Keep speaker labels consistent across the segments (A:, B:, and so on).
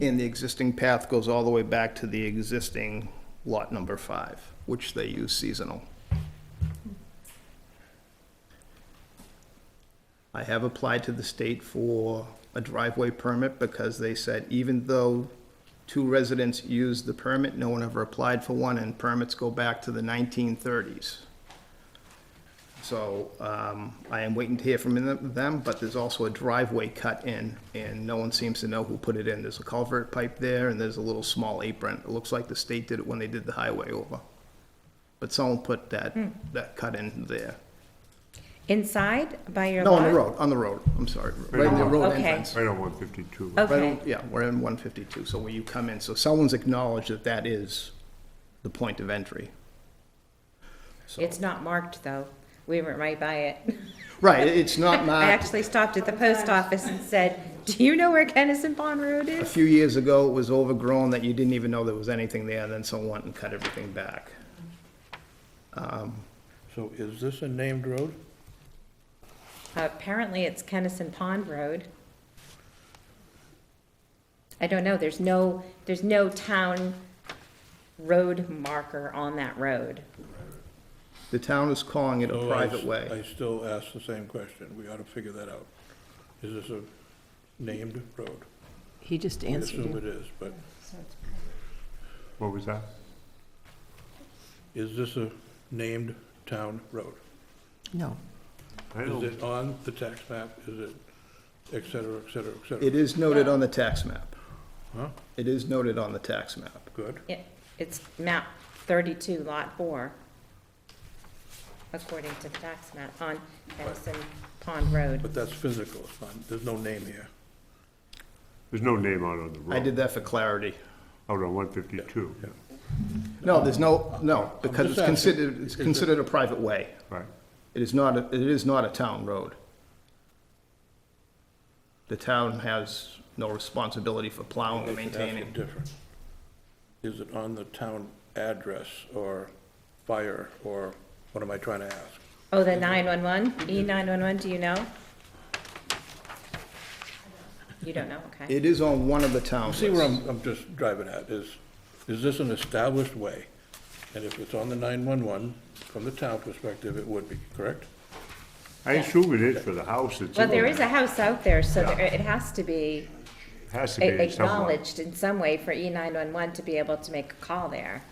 A: And the existing path goes all the way back to the existing lot number five, which they use seasonal. I have applied to the state for a driveway permit because they said even though two residents used the permit, no one ever applied for one, and permits go back to the nineteen thirties. So um, I am waiting to hear from them- them, but there's also a driveway cut in, and no one seems to know who put it in. There's a culvert pipe there, and there's a little small apron. It looks like the state did it when they did the highway over. But someone put that,
B: Hmm.
A: that cut in there.
B: Inside by your
A: No,
B: lot?
A: on the road, on the road, I'm sorry, right in the road
B: Oh, Okay.
A: entrance.
C: Right on one fifty-two.
A: Right
B: Okay,
A: on- Yeah, we're in one fifty-two, so where you come in, so someone's acknowledged that that is the point of entry. So-
B: it's not marked, though. We were right by it.
A: Right, it's not
B: I
A: marked.
B: actually stopped at the post office and said, do you know where Kennison Pond Road
A: A
B: is?
A: few years ago, it was overgrown that you didn't even know there was anything there, then someone went and cut everything back.
D: So is this a named road?
B: Apparently, it's Kennison Pond Road. I don't know, there's no, there's no town road marker on that road.
A: The town is calling it a
D: So Oh, I
A: private
D: s-
A: way.
D: I still ask the same question. We ought to figure that out. Is this a named road?
E: He just
D: I
E: answered
D: assume
E: you.
D: it is, but
C: What was that?
D: is this a named town road?
E: No.
C: I
D: Is
C: don't,
D: it on the tax map? Is it et cetera, et cetera, et cetera?
A: It is noted on the tax map.
D: Huh?
A: It is noted on the tax map.
D: Good.
B: It, it's map thirty-two, lot four, according to the tax map on Kennison Pond Road.
D: But that's physical. It's not, there's no name here.
C: there's no name out on the road.
A: I did that for clarity.
C: Out on one fifty-two,
D: Yeah.
A: No, there's no, no, because
D: just
A: it's
D: asking.
A: considered, it's considered a private way.
C: right?
A: It is not, a- it is not a town road. The town has no responsibility for plowing and
D: It's actually
A: maintaining.
D: Different. Is it on the town address or fire or what am I trying to ask?
B: Oh, the nine-one-one, E nine-one-one, do you know? You don't know, okay.
A: It is on one of the town
D: See where
A: roads.
D: I'm, I'm just driving at, is, is this an established way? And if it's on the 911, from the town perspective, it would be, correct?
C: I assume it is for the house that's
B: Well,
C: in
B: there is a
C: there.
B: house out there, so there- it has to be
C: Has to
B: a-
C: be somewhere.
B: acknowledged in some way for E nine-one-one to be able to make a call there.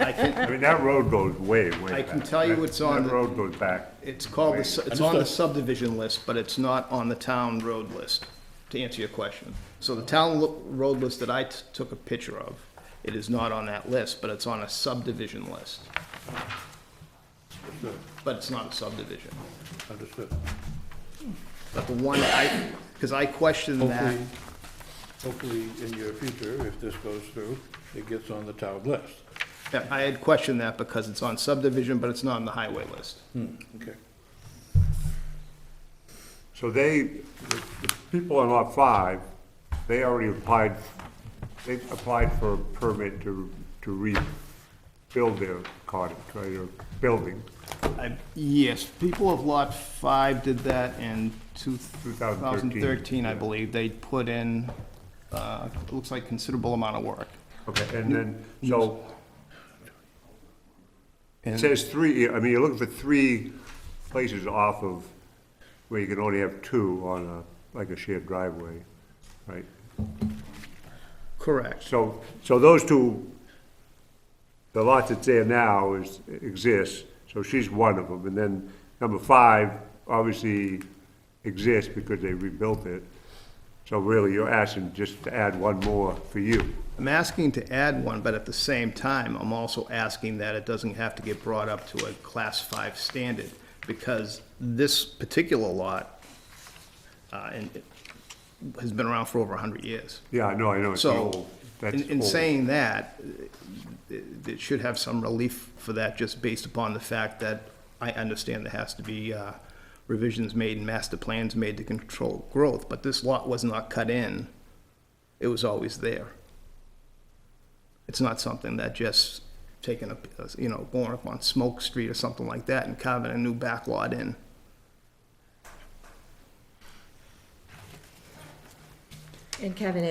A: I can,
C: I mean, that road goes way, way back.
A: I can tell you
C: That-
A: it's on
C: That
A: the-
C: road goes back.
A: it's called, the su- it's on the subdivision list, but it's not on the town road list, to answer your question. So the town lo- road list that I t- took a picture of, it is not on that list, but it's on a subdivision list.
D: Understood,
A: But it's not a subdivision.
D: Understood.
A: But the one I, because I questioned that.
D: Hopefully, hopefully in your future, if this goes through, it gets on the town list.
A: Yeah, I had questioned that because it's on subdivision, but it's not on the highway list.
D: Hmm, okay.
C: So they, the the people on lot five, they already applied, they applied for a permit to, to rebuild their cottage, right, or building.
A: I- Yes, people of Lot 5 did that in
C: 2013,
A: 2013, I
C: yeah.
A: believe. They put in, uh, it looks like considerable amount of work.
C: Okay, and then, so, it
A: And-
C: says three, I mean, you're looking for three places off of, where you can only have two on a, like a shared driveway, right?
A: Correct.
C: So, so those two, the lot that's there now is, exists, so she's one of them. And then number five obviously exists because they rebuilt it. So really, you're asking just to add one more for you.
A: I'm asking to add one, but at the same time, I'm also asking that it doesn't have to get brought up to a Class 5 standard, because this particular lot uh, and it has been around for over 100 years.
C: Yeah, I know, I know, it's
A: So,
C: old.
A: in,
C: That's
A: in
C: old.
A: saying that, it, it should have some relief for that, just based upon the fact that I understand there has to be, uh, revisions made and master plans made to control growth, but this lot was not cut in. It was always there. It's not something that just taking a, you know, going up on Smoke Street or something like that and carving a new back lot in.
B: And Kevin,